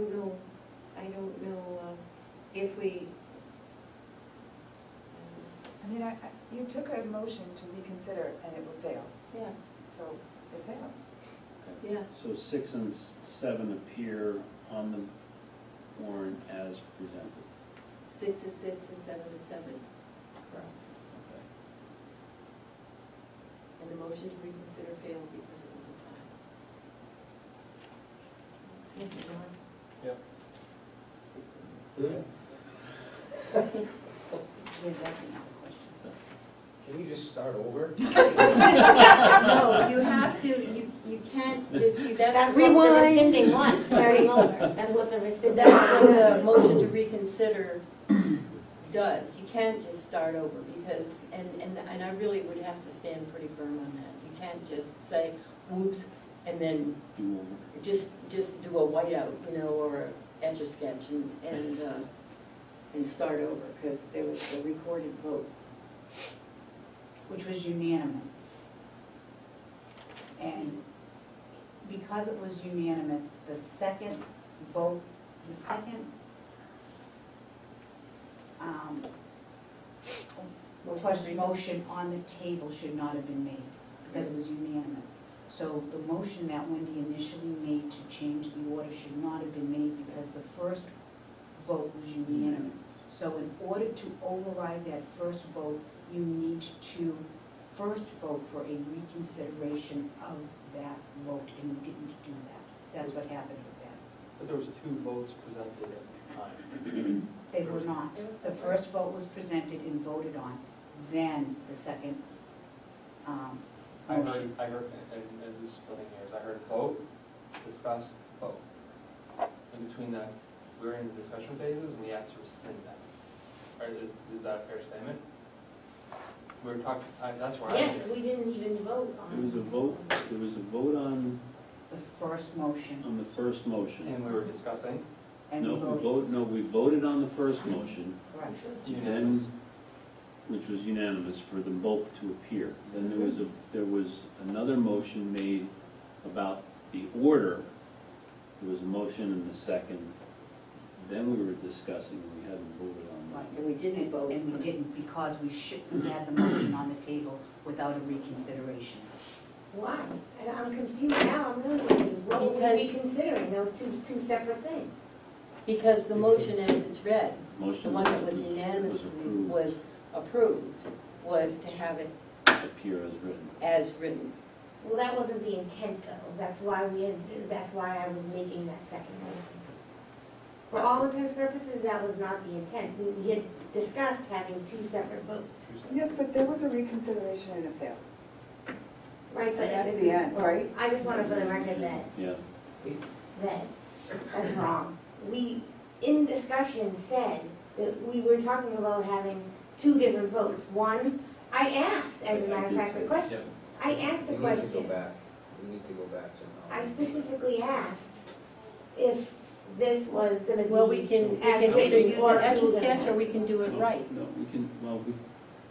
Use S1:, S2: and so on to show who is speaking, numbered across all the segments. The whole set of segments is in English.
S1: uh, uh,
S2: You took a motion to reconsider and it would fail,
S1: Yeah,
S2: so it failed.
S1: yeah,
S3: So six and s- seven appear on the warrant as presented.
S1: six is six and seven is seven,
S3: Okay.
S1: and the motion to reconsider failed because it was a tie. Yes, Norm?
S2: He's asking us a question.
S4: Can you just start over?
S1: No, you have to, you, you can't just, see, that's
S5: That's what the
S1: rewind.
S5: rescinding wants, starting over. That's what the
S1: So
S5: rescinding.
S1: That's what the motion to reconsider does. You can't just start over because, and, and, and I really would have to stand pretty firm on that. You can't just say, whoops, and then
S3: Do over.
S1: just, just do a whiteout, you know, or a etch a sketch and, and, uh, and start over, because there was a recorded vote.
S6: which was unanimous. And because it was unanimous, the second vote, the second, um, question, motion on the table should not have been made, because it was unanimous. So the motion that Wendy initially made to change the order should not have been made, because the first vote was unanimous. So in order to override that first vote, you need to first vote for a reconsideration of that vote, and you didn't do that. That's what happened with that.
S7: But there was two votes presented at the time.
S6: They were not. The first vote was presented and voted on, then the second um,
S7: I heard,
S6: motion.
S7: I heard, and, and this is splitting hairs, I heard vote, discuss, vote. In between that, we were in the discussion phases, and we asked to rescind that. Or is, is that a fair statement? We were talking, I, that's where I'm
S5: Yes,
S7: here.
S5: we didn't even vote
S3: There was a
S5: on.
S3: vote, there was a vote on,
S6: The first motion,
S3: on the first motion.
S7: And we were discussing
S6: and
S3: No,
S6: we
S3: we
S6: voted.
S3: vote, no, we voted on the first motion,
S6: Correct.
S7: unanimous.
S3: which was unanimous for them both to appear. Then there was a, there was another motion made about the order. There was a motion and a second. Then we were discussing, we hadn't voted on that.
S1: And we didn't vote.
S6: And we didn't, because we should, we had the motion on the table without a reconsideration.
S5: Why? And I'm confused now, I'm wondering, what were we
S1: Because-
S5: reconsidering, those two, two separate things?
S1: Because the motion as it's read,
S3: Motion.
S1: the one that was
S3: was
S1: unanimously,
S3: approved,
S1: was approved, was to have it
S3: Appear as written.
S1: as written.
S5: Well, that wasn't the intent though, that's why we, had- that's why I was making that second motion. For all intents and purposes, that was not the intent, We- we had discussed having two separate votes.
S2: Yes, but there was a reconsideration and it failed.
S5: Right, but.
S2: That's the end, right?
S5: I just want to put the record that
S3: Yeah,
S5: that that's wrong. We, in discussion, said that we were talking about having two different votes. One, I asked, as a matter of fact, the question. I asked the
S4: We need to go
S5: question.
S4: back, we need to um, go back
S5: I
S4: somehow.
S5: specifically asked if this was gonna be.
S1: Well, we can, we can
S5: as
S1: either
S5: written
S1: use
S5: or
S1: an etch a
S5: approved.
S1: sketch or we can do it
S3: No,
S1: right.
S3: No, we can, well, we,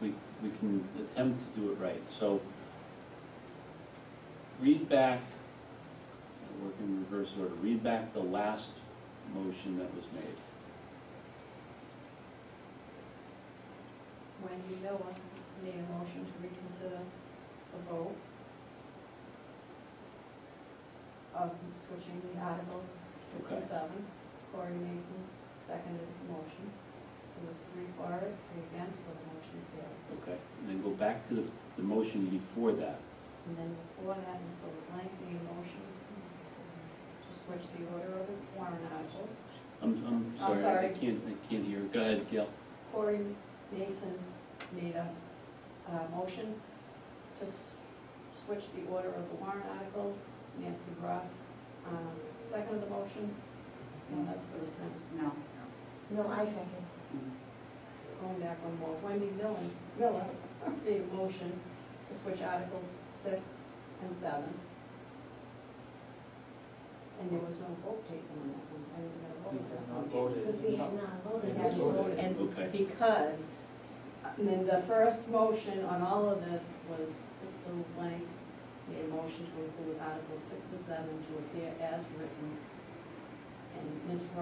S3: we, we can attempt to do it right, so read back, work in reverse order, read back the last motion that was made.
S1: Wendy Miller made a motion to reconsider the vote of switching the articles six and
S3: Okay.
S1: seven. Corey Mason seconded the motion. It was three for it, three against, so the motion failed.
S3: Okay, and then go back to the, the motion before that.
S1: And then before that, Mr. LeBlanc made a motion to switch the order of the warrant articles.
S3: I'm, I'm sorry, I- I
S1: sorry.
S3: can't, I can't hear, go ahead, Gail.
S1: Corey Mason made a, uh motion to s- switch the order of the warrant articles. Nancy Ross, um, seconded the motion. No, that's the rescind.
S6: No.
S5: No, I second.
S1: Going back one more, Wendy Millen, Miller made a motion to switch Article six and seven. And there was no vote taken on that one, I didn't get a vote.
S7: We
S1: on that
S7: had not
S1: one.
S7: voted.
S5: Because we had not voted.
S7: Yeah, we voted.
S1: And
S3: Okay.
S1: because, I mean, the first motion on all of this was Mr. LeBlanc made a motion to include Article six and seven to appear as written. And Ms. Ross